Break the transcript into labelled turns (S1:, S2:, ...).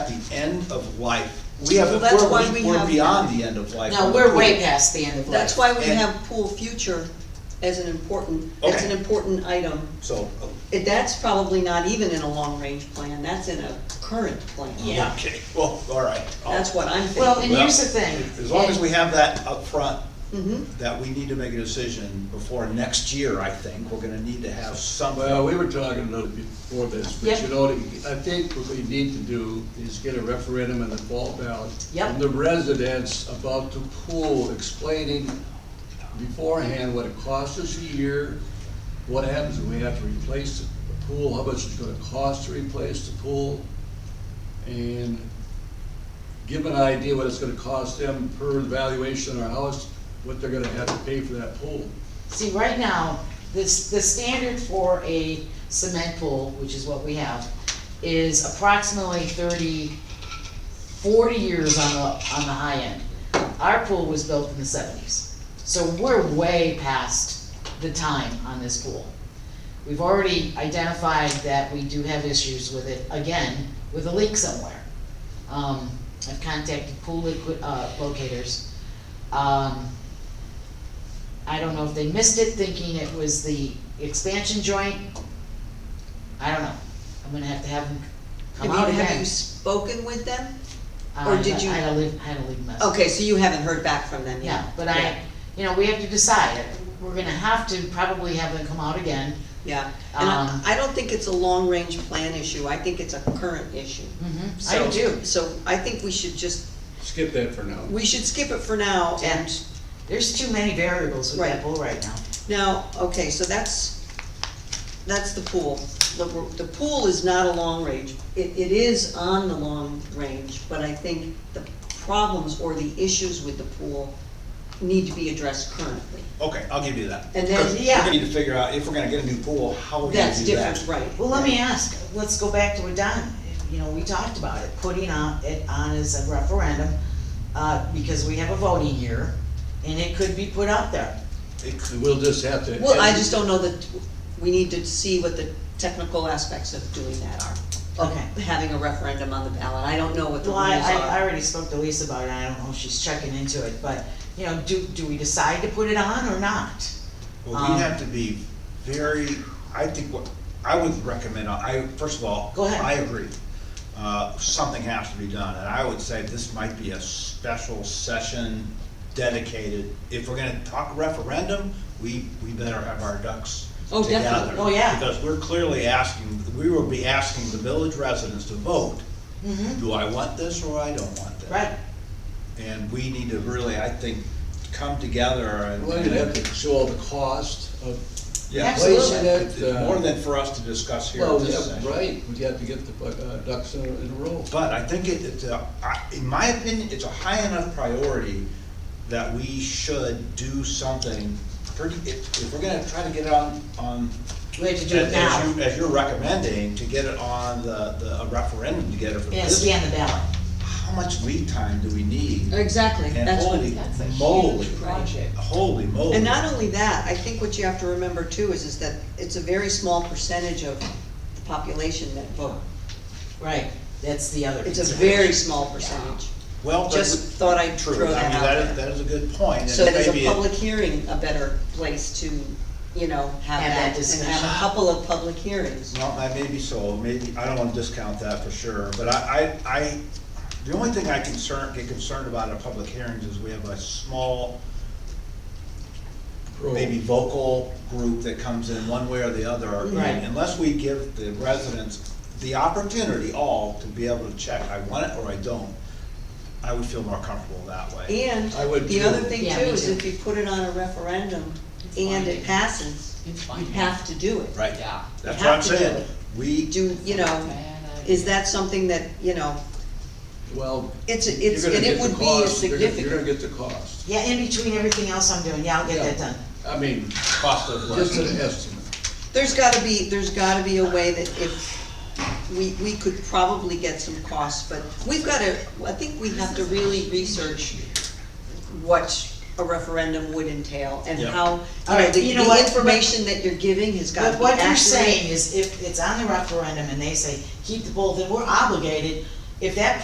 S1: the end of life. We have,
S2: Well, that's why
S1: we're,
S2: we
S1: we're
S2: have-
S1: beyond the end of life.
S3: No, we're way past the end of
S2: That's
S3: life.
S2: why we
S1: And-
S2: have pool future as an important, that's an
S1: Okay.
S2: important item.
S1: So, uh,
S2: It- That's probably not even in a long-range plan, that's in a current plan.
S3: Yeah.
S1: okay, well, all right. I'll-
S2: That's what I'm
S3: Well,
S2: thinking.
S3: and here's the thing.
S1: As long as we have that up front,
S2: Mhm.
S1: that we need to make a decision before next year, I think, we're gonna need to have
S4: Well,
S1: some,
S4: we were talking a little before this, but
S3: Yep.
S4: you know, I think what we need to do is get a referendum and a fall ballot.
S3: Yep.
S4: From the residents about the pool, explaining beforehand what it costs us a year, what happens if we have to replace the pool, how much it's gonna cost to replace the pool, and give an idea what it's gonna cost them per valuation of our house, what they're gonna have to pay for that pool.
S3: See, right now, this, the standard for a cement pool, which is what we have, is approximately 30, 40 years on the, on the high end. Our pool was built in the seventies, so we're way past the time on this pool. We've already identified that we do have issues with it, again, with a leak somewhere. Um, I've contacted pool liquid, uh, locators. Um, I don't know if they missed it, thinking it was the expansion joint. I don't know. I'm gonna have to have them
S2: I
S3: come
S2: mean,
S3: out
S2: have you
S3: again.
S2: spoken with them?
S3: Uh,
S2: or did you-
S3: I had to leave, I had to leave a message.
S2: Okay, so you haven't heard back from them yet?
S3: Yeah, but I, you know, we have to decide. We're gonna have to probably have them come out again.
S2: Yeah, and I,
S3: Um,
S2: I don't think it's a long-range plan issue, I think it's a current issue.
S3: Mm-hmm, I
S2: So-
S3: do.
S2: So I think we should just,
S4: Skip that for now.
S2: we should skip it for now and
S3: There's too many variables with
S2: Right.
S3: that bull right now.
S2: Now, okay, so that's, that's the pool. The, the pool is not a long range. It, it is on the long range, but I think the problems or the issues with the pool need to be addressed currently.
S1: okay, I'll give you that.
S2: And then,
S1: 'Cause
S3: yeah.
S1: We're gonna need to figure out, if we're gonna get a new pool, how we're gonna
S2: That's
S1: do that.
S2: different, right.
S3: Well, let me ask, let's go back to what Don, you know, we talked about it, putting on, it on as a referendum, uh, because we have a voting year, and it could be put out there.
S4: And We'll just have to.
S2: Well, I just don't know that, we need to see what the technical aspects of doing that are. of
S3: Okay.
S2: Having a referendum on the ballot. I don't know what the
S3: Well,
S2: rules
S3: I, I, I
S2: are.
S3: already spoke to Lisa about it, I don't know if she's checking into it, but, you know, do, do we decide to put it on or not?
S1: Well,
S3: Um,
S1: we have to be very, I think what, I would recommend, I, first of all.
S3: Go ahead.
S1: I agree. Uh, something has to be done, and I would say this might be a special session dedicated. If we're gonna talk referendum, we, we better have our ducks
S2: Oh,
S1: together.
S2: definitely.
S3: Oh, yeah.
S1: Because we're clearly asking, we will be asking the village residents to vote,
S3: Mm-hmm,
S1: do I want this or I don't want this?
S3: right,
S1: And we need to really, I think, come together and.
S4: Well, you'd have to show all the cost of, uh,
S1: Yeah.
S3: Absolutely.
S1: It's More
S2: uh,
S1: than for us to discuss here
S4: well,
S2: Oh,
S1: at this
S4: yeah,
S1: session.
S4: right, we'd have to get the uh, ducks in a in a row.
S1: But I think it, it's a, I- in my opinion, it's a high enough priority that we should do something pretty, if, if we're gonna try to get it on, on.
S3: we have to do it
S1: as-
S3: now.
S1: As you, as you're recommending, to get it on the, the a referendum to get it for
S3: Yeah,
S1: this.
S3: scan the ballot.
S1: How much lead time do we need?
S2: Exactly,
S1: And
S2: that's what.
S1: holy
S3: that's a
S1: moly,
S3: huge project.
S1: holy moly.
S2: And not only that, I think what you have to remember too is, is that it's a very small percentage of the population that vote.
S3: Right, that's the other.
S2: It's a
S3: consideration.
S2: very small percentage.
S1: Well, but
S2: Just
S1: we-
S2: thought I'd
S1: true.
S2: throw
S1: I
S2: that
S1: mean,
S2: out
S1: is- That
S2: there.
S1: is a good point, and
S2: So is
S1: maybe
S2: a
S1: it-
S2: public hearing a better place to, you know, have
S3: Have
S2: that, and have
S3: that discussion.
S2: a couple of public hearings.
S1: Well, I maybe so, maybe, I don't wanna discount that for sure, but I, I, I, the only thing I concern, get concerned about at public hearings is we have a small,
S4: Pro.
S1: maybe vocal group that comes in one way or the other.
S3: Right.
S1: Unless we give the residents the opportunity all to be able to check, I want it or I don't, I would feel more comfortable that way.
S2: And
S4: I would
S2: the
S4: too.
S2: other thing
S3: Yeah,
S2: too
S3: me
S2: is
S3: too.
S2: if you put it on a referendum and it passes,
S3: It's
S2: you
S3: fine.
S2: have to do it.
S1: Right,
S3: Yeah.
S1: that's
S2: You
S1: what
S2: have
S1: I'm
S2: to do
S1: saying,
S2: it.
S1: we do,
S2: Do, you know, is that something that, you know,
S4: Well.
S2: it's, a-
S4: you're
S2: it's,
S4: gonna
S2: and
S4: get
S2: it
S4: the
S2: would be a
S4: cost, you're gonna-
S2: significant.
S4: You're gonna get the cost.
S3: Yeah, in between everything else I'm doing, yeah, I'll get that
S4: Yeah.
S3: done.
S4: I mean,
S1: cost of.
S4: just an estimate.
S2: There's gotta be, there's gotta be a way that if, we, we could probably get some costs, but we've gotta, I think we have to really research what a referendum would entail and
S1: Yeah.
S2: how, you know,
S3: All right,
S2: the,
S3: you know
S2: the
S3: what?
S2: information that you're giving has gotta
S3: But
S2: be
S3: what you're
S2: accurate.
S3: saying is if it's on the referendum and they say, keep the poll, then we're obligated, if that